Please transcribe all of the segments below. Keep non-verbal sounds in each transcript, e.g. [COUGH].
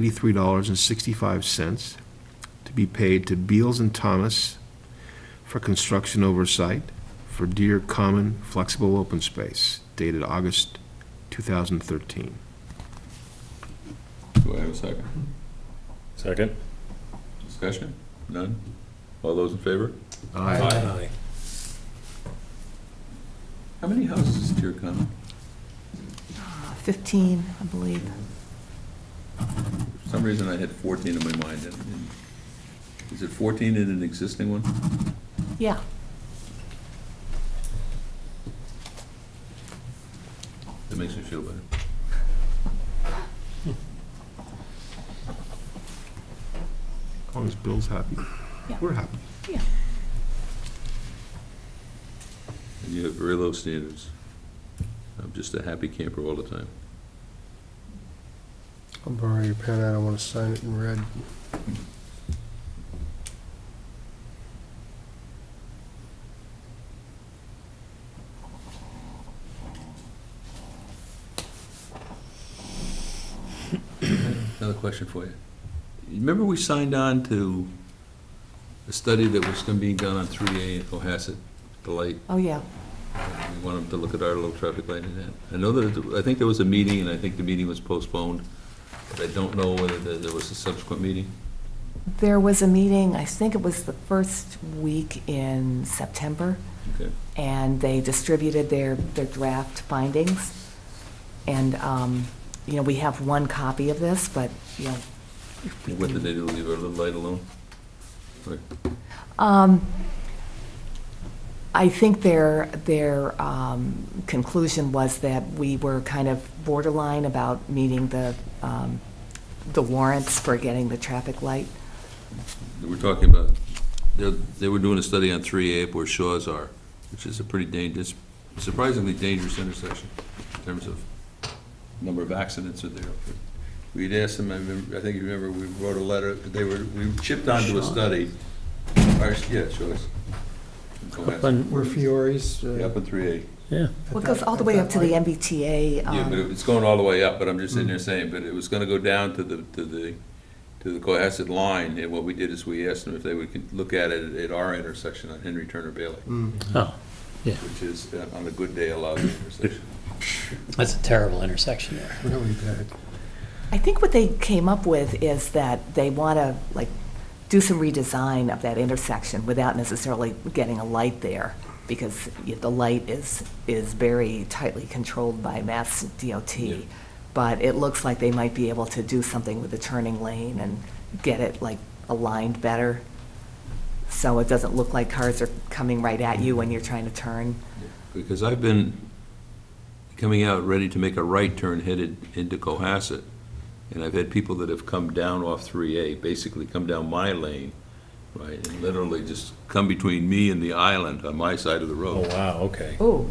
eighty-three dollars and sixty-five cents to be paid to Beals and Thomas for construction oversight for Deer Common Flexible Open Space dated August two thousand thirteen. Do I have a second? Second? Discussion? None? All those in favor? Aye. How many houses is Deer Common? 15, I believe. For some reason, I had 14 in my mind. and- and- Is it 14 in an existing one? Yeah. That makes me feel better. As long as Bill's happy, Yeah. we're happy. And you have very low standards. I'm just a happy camper all the time. I'll borrow your pen, I don't want to sign it in red. Another question for you. Remember we signed on to a study that was gonna be done on 3A in Cohasset, the light? Oh, yeah. We want them to look at our little traffic light and that. I know that, I think there was a meeting, and I think the meeting was postponed, but I don't know whether there there was a subsequent meeting. There was a meeting, I think it was the first week in September, Okay. and they distributed their, their draft findings. And, um, you know, we have one copy of this, but, you know. if we Whether can- they do leave our little light alone? Or- Um, I think their, their um, conclusion was that we were kind of borderline about meeting the, um, the warrants for getting the traffic light. We're talking about, they're- they were doing a study on 3A up where Shaw's are, which is a pretty dangerous, surprisingly dangerous intersection in terms of number of accidents are there. We'd asked them, I remember- I think you remember, we wrote a letter, they were, we chipped onto a study. Our- Yeah, Shaw's. In Cohasset. Where Fiore's. uh, Yeah, Up in 3A. yeah. Well, it goes all the way up to the MBTA. Yeah, but um, it's going all the way up, but I'm just sitting there saying, but it was gonna go down to the, to the, to the Cohasset line, and what we did is we asked them if they would con- look at it at our intersection on Henry Turner Bailey, mm, Oh, which is uh, on a good day allowed intersection. that's a terrible intersection there. Really bad. I think what they came up with is that they want to, like, do some redesign of that intersection without necessarily getting a light there, because y- the light is, is very tightly controlled by Mass DOT. Yeah. But it looks like they might be able to do something with the turning lane and get it, like, aligned better, so it doesn't look like cars are coming right at you when you're trying to turn. [LAUGHS] Because I've been coming out ready to make a right turn headed into Cohasset, and I've had people that have come down off 3A, basically come down my lane, right, and literally just come between me and the island on my side of the road. Oh, wow, okay. Ooh,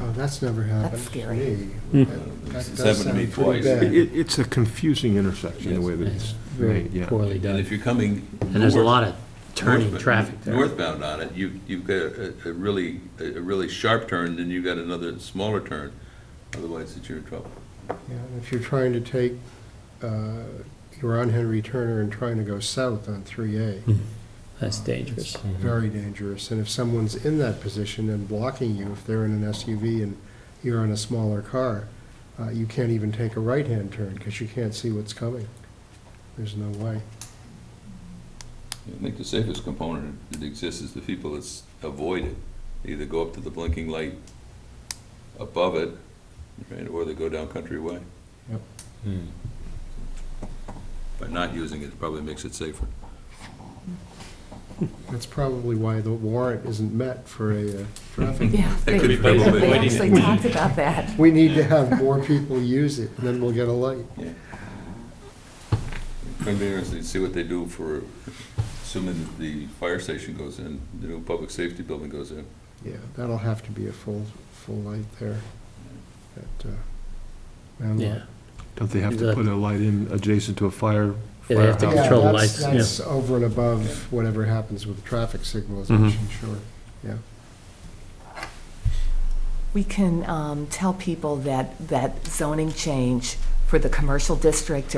Oh, that's never happened to scary. me. Hmm. That- that It's does happened to me sound pretty twice. bad. It, it- it's a confusing intersection, the way that it's Very made, yeah. poorly And done. if you're coming. And there's a north- lot of turning northbound- traffic there. Northbound on it, you, you've got a, a really, a really sharp turn, then you've got another smaller turn, otherwise it's you're in trouble. Yeah, and If you're trying to take, uh, you're on Henry Turner and trying to go south on 3A. That's dangerous. It's Very dangerous, and if someone's in that position and blocking you, if they're in an SUV and you're in a smaller car, uh, you can't even take a right-hand turn, because you can't see what's coming. There's no way. I think the safest component that exists is the people that s- avoid it. They Either go up to the blinking light above it, right, or they go down Country Way. Yep. By not using it, it probably makes it safer. That's probably why the warrant isn't met for a uh, [LAUGHS] traffic. yeah. That could they- be probably- They actually talked about that. We need to have more people use it, and then we'll get a light. Yeah. It's gonna be interesting to see what they do for, assuming that the fire station goes in, the new public safety building goes in. Yeah, that'll have to be a full, full light there. at, uh, Round Lot. Yeah, Don't they have to put a light in adjacent to a fire? Yeah, they have to firehouse? Yeah, control the that's- lights, yeah. That's over and above whatever happens with traffic signalization, Mm-hmm. sure, yeah. We can um, tell people that, that zoning change for the commercial district